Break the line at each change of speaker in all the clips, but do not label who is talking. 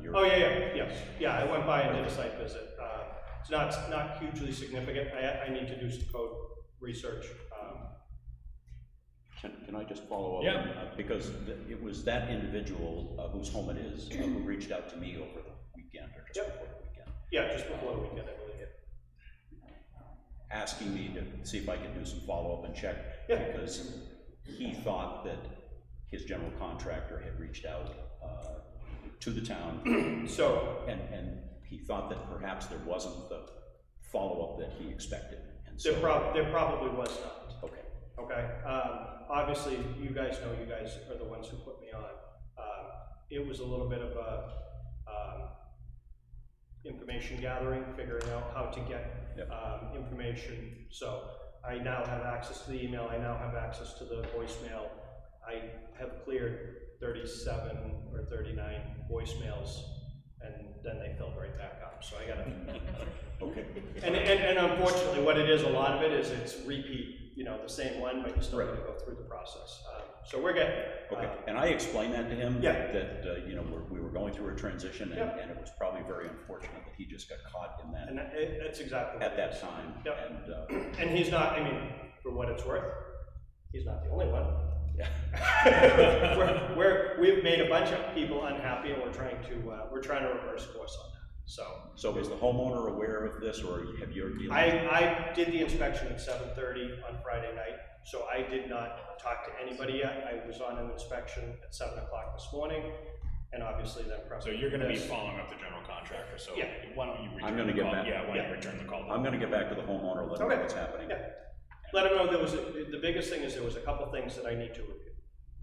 here.
Oh, yeah, yeah, yes, yeah, I went by and did a site visit. Uh, It's not, it's not hugely significant, I, I need to do some code research. Um,
Can, can I just follow up?
Yeah.
Uh, Because th- it was that individual uh, whose home it is, uh, who reached out to me over the weekend or just
Yep.
before the weekend,
Yeah, just before the weekend, I believe.
asking me to see if I could do some follow-up and check.
Yeah.
Because he thought that his general contractor had reached out uh, to the town,
So,
and, and he thought that perhaps there wasn't the follow-up that he expected, and so,
there prob, there probably was not,
okay.
okay? Um, Obviously, you guys know, you guys are the ones who put me on. Um, It was a little bit of a, um, information gathering, figuring out how to get,
Yep.
um, information. So I now have access to the email, I now have access to the voicemail. I have cleared thirty-seven or thirty-nine voicemails, and then they filled right back up, so I gotta
Okay.
And, and, and unfortunately, what it is, a lot of it is it's repeat, you know, the same one, but you still have to go through the process. Uh, So we're getting there.
Okay,
Uh,
and I explained that to him.
Yeah.
That, uh, you know, we're- we were going through a transition, and,
Yeah.
and it was probably very unfortunate that he just got caught in that,
And that, it- that's exactly what
at
it
that
is.
time.
Yeah.
And, uh,
And he's not, I mean, for what it's worth, he's not the only one.
Yeah.
We're, we're, we've made a bunch of people unhappy, and we're trying to, uh, we're trying to reverse course on that. So
so is the homeowner aware of this, or have you? already-
I, I did the inspection at seven thirty on Friday night, so I did not talk to anybody yet. I was on an inspection at seven o'clock this morning, and obviously then.
So you're gonna be
this-
following up the general contractor, so
Yeah.
why don't you return?
I'm gonna
the
get
call-
back-
Yeah, why don't
yeah.
you return the call?
I'm gonna get back to the homeowner, let him know
Okay.
what's happening.
Yeah. Let them know there was, a- the biggest thing is there was a couple things that I need to review,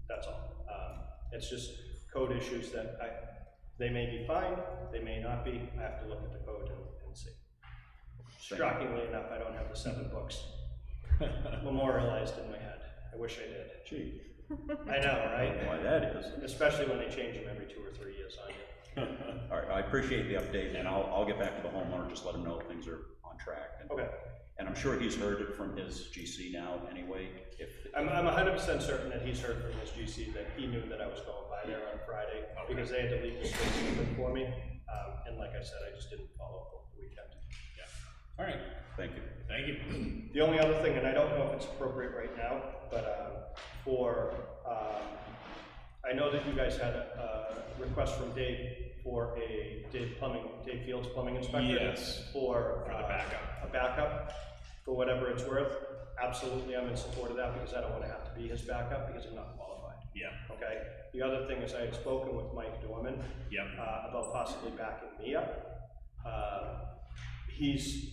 that's all. Um, It's just code issues that I, they may be fine, they may not be, I have to look at the code and, and see. Shockingly enough, I don't have the seven books memorialized in my head, I wish I did.
Gee,
I know,
I don't know
right?
why that is.
Especially when they change them every two or three years on you.
All right, I appreciate the update, and I'll, I'll get back to the homeowner, just let him know things are on track. and-
Okay,
And I'm sure he's heard it from his GC now, anyway, if,
I'm, I'm hundred percent certain that he's heard from his GC that he knew that I was going by there on Friday, because they had to leave the space open for me, um, and like I said, I just didn't follow up over the weekend.
All right,
thank you.
thank you.
The only other thing, and I don't know if it's appropriate right now, but um, for, um, I know that you guys had a a request from Dave for a, Dave Plumbing, Dave Fields Plumbing Inspector.
Yes.
For.
For the
uh,
backup.
A backup, for whatever it's worth. Absolutely, I'm in support of that because I don't want to have to be his backup because I'm not qualified,
Yeah,
okay? The other thing is I had spoken with Mike Dorman
yeah,
uh, about possibly backing me up. Uh, He's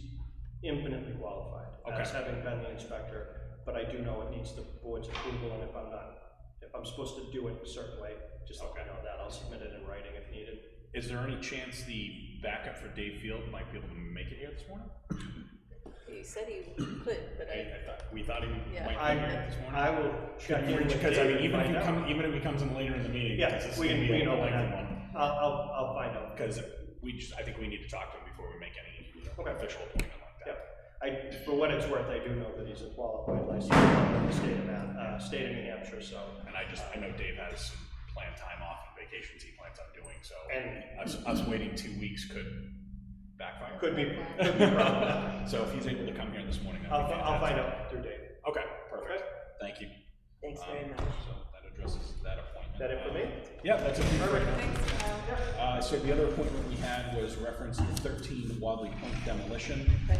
infinitely qualified, as having been the inspector, but I do know it needs the board's approval, and if I'm not, if I'm supposed to do it a certain way, just let me know that, I'll submit it in writing if needed.
is there any chance the backup for Dave Field might be able to make it here this morning?
He said he could, but
I,
I,
I thought, we thought he
Yeah.
might be here
I,
this morning.
I will check in with
Because I
Dave
mean,
and
even if
find
he
out.
comes, even if he comes in later in the meeting,
Yeah,
because this is
we
gonna
can-
be
we
a
can open
lengthy
that.
one.
I'll, I'll, I'll find out.
Because we just, I think we need to talk to him before we make any you know,
Okay.
official appointment like
Yeah,
that.
I, for what it's worth, I do know that he's a qualified licensed plumber in the state of, Ma- uh, state of New Hampshire, so.
And I just, I know Dave has some planned time off and vacations he plans on doing, so
And
us, us waiting two weeks could backfire.
could be, could be a problem.
So if he's able to come here this morning,
I'll,
that'd be
I'll find
fantastic.
out through Dave.
Okay, perfect. Thank you.
thanks
Um,
very much.
So that addresses that appointment. Um,
Is that it for me?
Yeah, that's it. for me.
Thanks, Kyle.
Uh, so the other appointment we had was reference to thirteen Wadley Point demolition.
Right.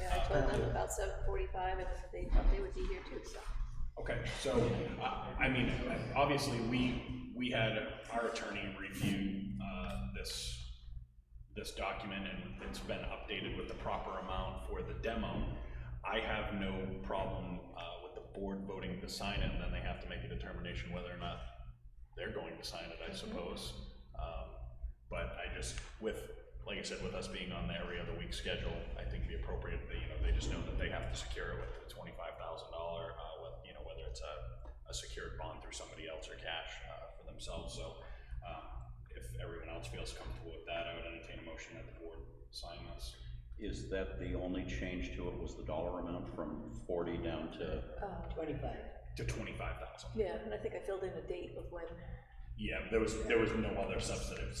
Yeah, I told them about seven forty-five, and they thought they would be here too, so.
Okay, so, uh, I mean, obviously, we, we had our attorney review, uh, this, this document, and it's been updated with the proper amount for the demo. I have no problem, uh, with the board voting to sign it, and then they have to make a determination whether or not they're going to sign it, I suppose. Um, But I just, with, like I said, with us being on the every other week schedule, I think the appropriate, they, you know, they just know that they have to secure it with the twenty-five thousand dollar, uh, with, you know, whether it's a, a secured bond through somebody else or cash, uh, for themselves, so, um, if everyone else feels comfortable with that, I would entertain a motion that the board sign this.
Is that the only change to it, was the dollar amount from forty down to,
Uh,
Twenty-five.
To twenty-five thousand.
Yeah, and I think I filled in a date of when
Yeah, there was, there was no other substantive